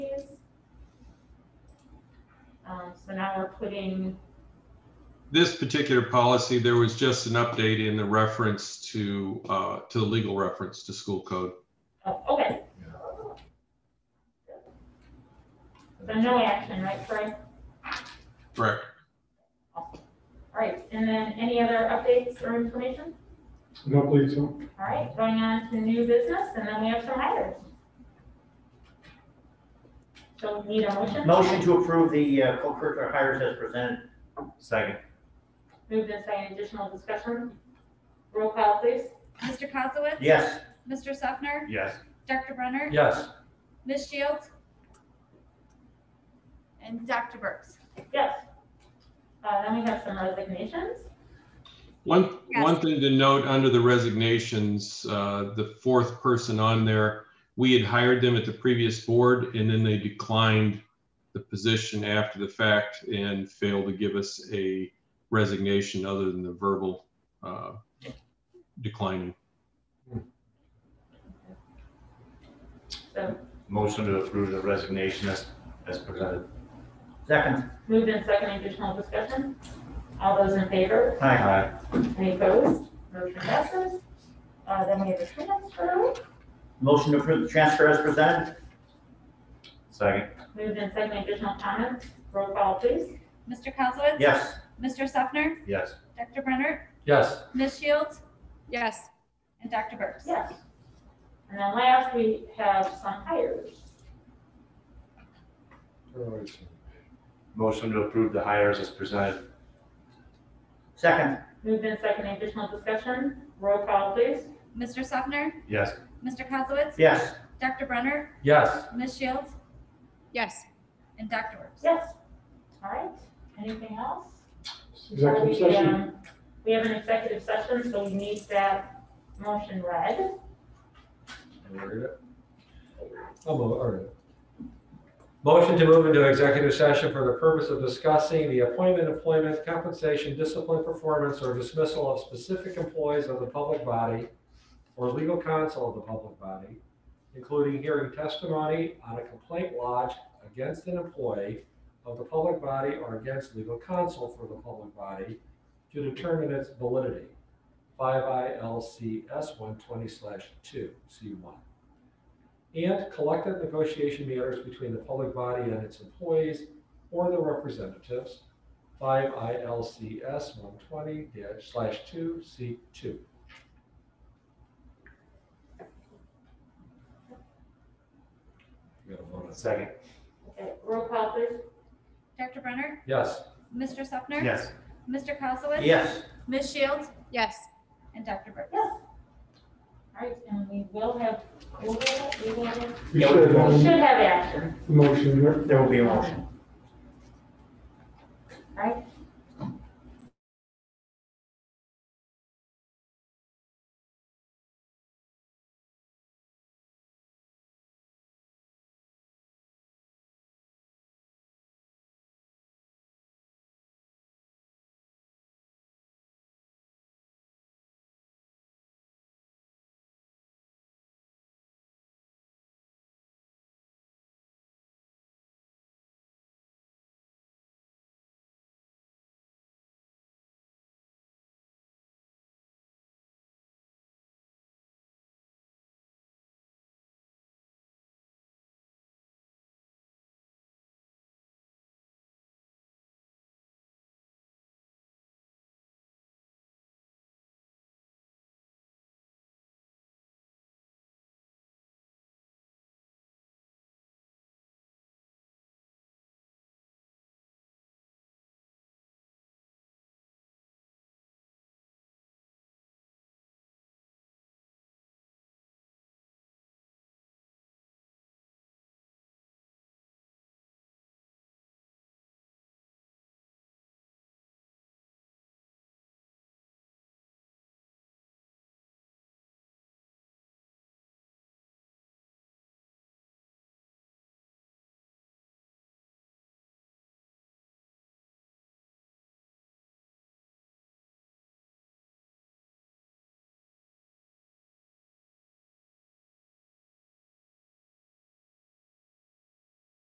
Um, so now we're putting, This particular policy, there was just an update in the reference to, uh, to the legal reference to school code. oh, okay, so no action, right, Troy? Correct. Awesome. All right, and then any other updates or information? Don't believe so. All right, going on to new business, and then we have some hires. So need a motion? Motion to approve the uh, co-curricular hires as presented. Second. Move this, any additional discussion? Roll call, please. Mr. Kozowitz? Yes. Mr. Sefner? Yes. Dr. Brenner? Yes. Ms. Shields? And Dr. Burks? Yes. Uh, then we have some resignations. One, Yes. one thing to note under the resignations, uh, the fourth person on there, we had hired them at the previous board and then they declined the position after the fact and failed to give us a resignation other than the verbal, uh, declining. So Motion to approve the resignation as, as presented. Second. moved in second, additional discussion. All those in favor, Aye. Aye. any opposed? Motion passes. Uh, then we have a transfer. Motion to approve the transfer as presented. Second. Moved in second, additional comments. Roll call, please. Mr. Kozowitz? Yes. Mr. Sefner? Yes. Dr. Brenner? Yes. Ms. Shields? yes, And Dr. Burks? Yes. And then last, we have some hires. Motion to approve the hires as presented. Second. Moved in second, additional discussion. Roll call, please. Mr. Sefner? Yes. Mr. Kozowitz? Yes. Dr. Brenner? Yes. Ms. Shields? yes. And Dr. Burks? Yes. All right. Anything else? Before Executive we, session. um, We have an executive session, so we need that motion read. I'll move, Oh, all right. Motion to move into executive session for the purpose of discussing the appointment, employment, compensation, discipline, performance, or dismissal of specific employees of the public body or legal counsel of the public body, including hearing testimony on a complaint lodged against an employee of the public body or against legal counsel for the public body to determine its validity. Five ILCS one twenty two, C one and collective negotiation matters between the public body and its employees or their representatives, five ILCS one twenty two C two. We gotta vote on that. Second. Okay, Roll call, please. Dr. Brenner? Yes, Mr. Sefner? Yes. Mr. Kozowitz? Yes. Ms. Shields? Yes. And Dr. Burks? Yes. All right, and we will have, we will, we will, we We should have should a have action. motion here. There will be a motion. All right,